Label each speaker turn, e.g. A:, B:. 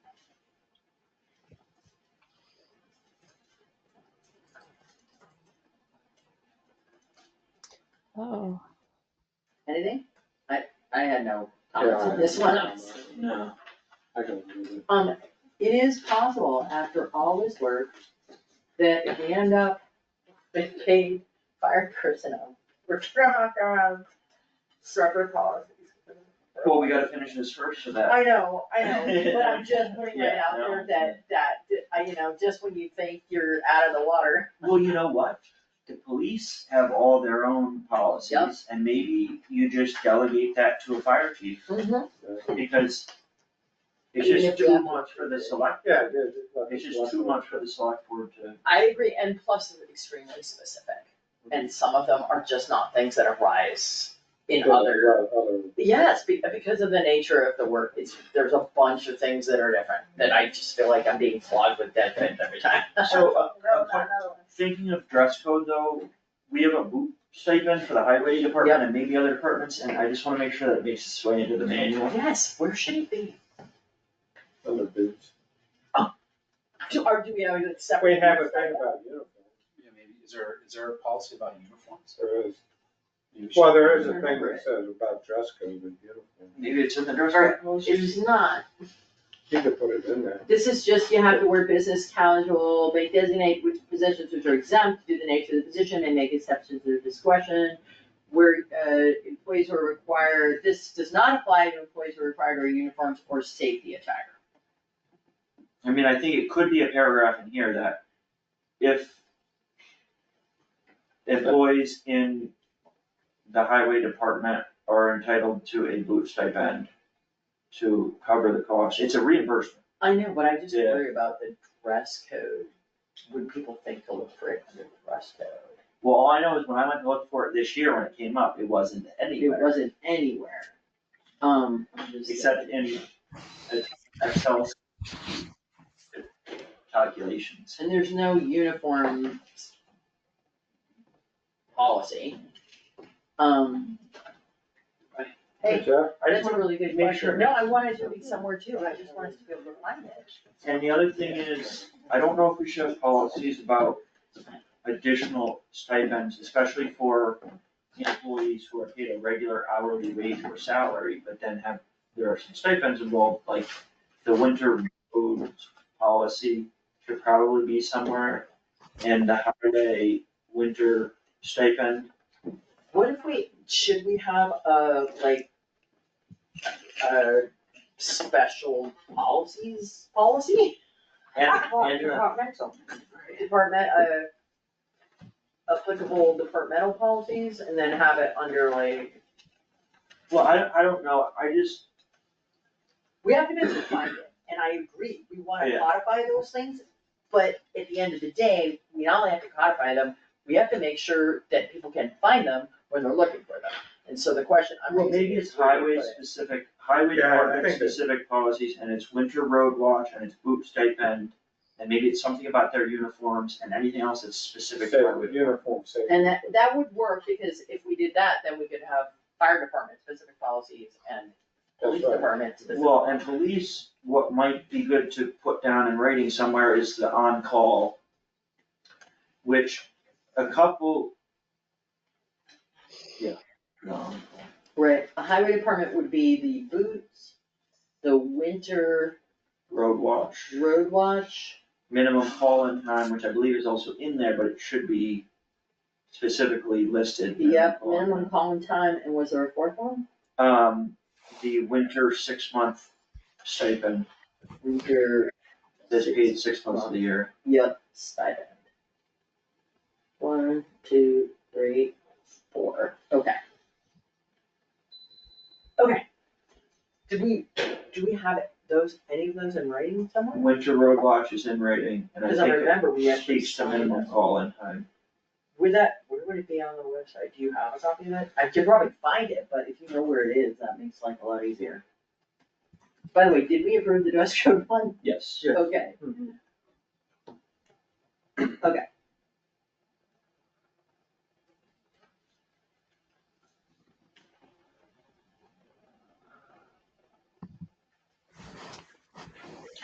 A: Oh,
B: Anything? I, I had no comments on Oh, this one, honestly.
A: no.
C: I don't remember.
B: Um, it is possible, after all this work, that if we end up with paid fire personnel, we're gonna have separate policies.
D: Well, we gotta finish this first so that,
B: I know, I know, but I'm just putting it out there that, that, I, you know, just when you think you're out of the water.
D: well, you know what? The police have all their own
B: Yep.
D: policies and maybe you just delegate that to a fire chief
C: Mm-hmm.
D: because it's
B: Even
D: just
B: if we
D: too
B: have-
D: much for the select,
C: Yeah, it is.
D: it's just too much for the select board to.
B: I agree, and plus it's extremely specific, and some of them are just not things that arise in other
C: Other.
B: Yes, be- because of the nature of the work, it's, there's a bunch of things that are different, that I just feel like I'm being flogged with dead ends every time.
D: So, uh, uh, point- thinking of dress code though, we have a boot stipend for the highway department and maybe other departments, and I just wanna make sure that it makes its way into the manual.
B: Yes, where should it be?
C: Other boots.
B: Do, or do we have a separate?
C: We have a thing about uniforms.
E: Yeah, maybe, is there, is there a policy about uniforms?
C: There is,
E: Maybe we should-
C: well, there is a thing that says about dress code and uniform.
D: Maybe it's in the dress
B: Or
D: code policy.
B: It's not,
C: You could put it in there.
B: this is just, you have to wear business casual, they designate which positions which are exempt due to the nature of the position, they make exceptions to their discretion. Where, uh, employees who are required, this does not apply to employees who are required to wear uniforms or safety attire.
D: I mean, I think it could be a paragraph in here that if employees in the highway department are entitled to a boot stipend to cover the cost, it's a reimbursement.
B: I know, but I just
D: Yeah.
B: worry about the dress code. Would people think to look for it under the dress code?
D: Well, all I know is when I went to look for it this year, when it came up, it wasn't
B: It
D: anywhere,
B: wasn't anywhere. Um, I'm just-
D: except in Excel calculations.
B: and there's no uniform policy. Um, hey,
C: Jeff?
D: I
B: that's
D: just wanna
B: a really good
D: make sure.
B: question. No, I wanted to be somewhere too, and I just wanted to be able to find it.
D: And the other thing is, I don't know if we should have policies about additional stipends, especially for employees who are paid a regular hourly wage or salary, but then have, there are some stipends involved, like the winter road policy should probably be somewhere, and the highway winter stipend,
B: What if we, should we have a, like, a special policies, policy?
D: and,
B: Well,
D: and
B: Departmental. Department, uh, applicable departmental policies and then have it under like,
D: Well, I, I don't know, I just,
B: we have to be able to find it, and I agree, we wanna
D: Yeah.
B: codify those things. But at the end of the day, we not only have to codify them, we have to make sure that people can find them when they're looking for them. And so the question I'm
D: well,
B: raising
D: maybe it's
B: is where do we
D: highway
B: put it?
D: specific, highway
C: Yeah, I
D: department
C: think that-
D: specific policies, and it's winter road watch, and it's boot stipend, and maybe it's something about their uniforms and anything else that's specific to
C: Say
D: highway.
C: with uniform safety.
B: And that, that would work, because if we did that, then we could have fire department specific policies and police
C: That's right.
B: department specific.
D: Well, and police, what might be good to put down in writing somewhere is the on-call, which a couple. Yeah, no,
B: Right, a highway department would be the boots, the winter
D: road watch,
B: road watch,
D: minimum call-in time, which I believe is also in there, but it should be specifically listed. minimum
B: yep,
D: call-in time.
B: minimum calling time, and was there a fourth one?
D: um, the winter six-month stipend,
B: Winter,
D: that's paid six months of the year.
B: yep, stipend. One, two, three, four, okay. Okay. Did we, do we have those, any of those in writing somewhere?
D: Winter road watch is in writing, and I
B: Because I
D: think it
B: remember we actually
D: speaks to
B: signed
D: minimum
B: it.
D: call-in time.
B: Would that, where would it be on the website? Do you have a copy of it? I could probably find it, but if you know where it is, that makes life a lot easier. By the way, did we approve the dress code one?
D: Yes.
C: Yes.
B: Okay. Okay.